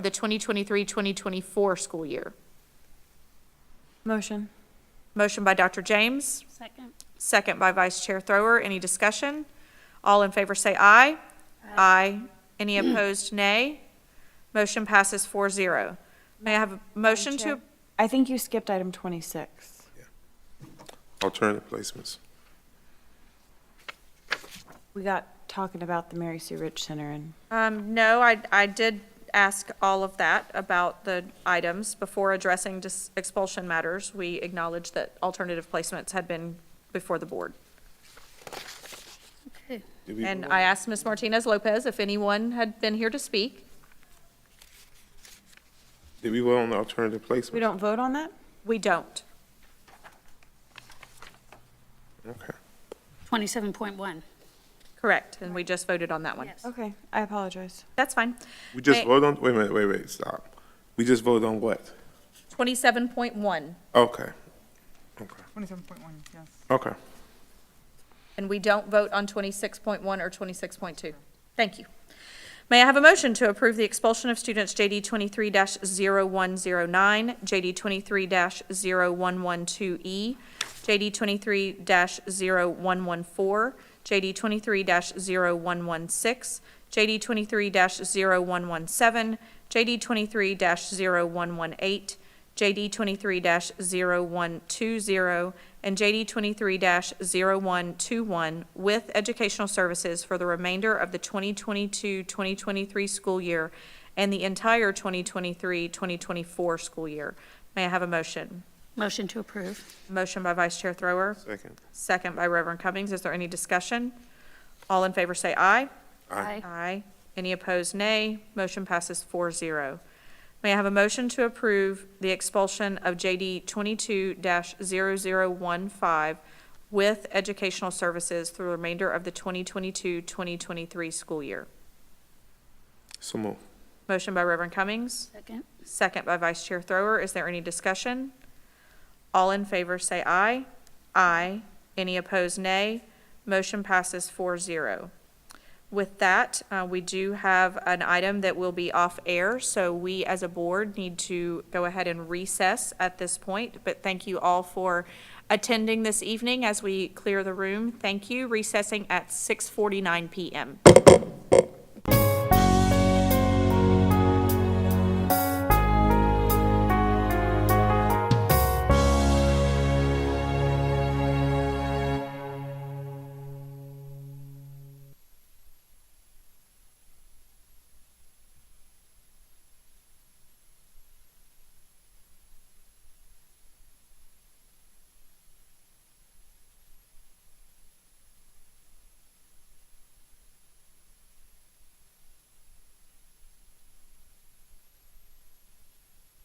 the 2023-2024 school year. Motion. Motion by Dr. James, Second. second by Vice Chair Thrower. Any discussion? All in favor say aye. Aye. Any opposed, nay. Motion passes 4-0. May I have a motion to, Chair. I think you skipped item 26. Alternative placements. We got talking about the Mary Sue Rich Center and um, no, I, I did ask all of that about the items before addressing dis- expulsion matters. We acknowledged that alternative placements had been before the board. Okay. Did we And vote? I asked Ms. Martinez Lopez if anyone had been here to speak. Did we vote on the alternative placements? we don't vote on that? We don't. Okay. Twenty-seven point one. Correct, and we just voted on that one. Yes. Okay, I apologize. That's fine. We just May- voted on, wait a minute, wait, wait, stop. We just voted on what? Twenty-seven point one, Okay. Okay. Twenty-seven point one, yes. Okay. and we don't vote on twenty-six point one or twenty-six point two. Thank you. May I have a motion to approve the expulsion of students JD twenty-three 109 JD twenty-three 112 E, JD twenty-three 114 JD twenty-three 116 JD twenty-three 117 JD twenty-three 118 JD twenty-three 120 and JD twenty-three 121 with educational services for the remainder of the 2022-2023 school year and the entire 2023-2024 school year. May I have a motion? Motion to approve. Motion by Vice Chair Thrower, Second. second by Reverend Cummings. Is there any discussion? All in favor say aye. Aye. Aye. Any opposed, nay. Motion passes 4-0. May I have a motion to approve the expulsion of JD twenty-two 15 with educational services through the remainder of the 2022-2023 school year? So move. Motion by Reverend Cummings, Second. second by Vice Chair Thrower. Is there any discussion? All in favor say aye. Aye. Any opposed, nay. Motion passes 4-0. With that, uh, we do have an item that will be off air, so we as a board need to go ahead and recess at this point. But thank you all for attending this evening as we clear the room. Thank you. Recessing at six forty-nine PM.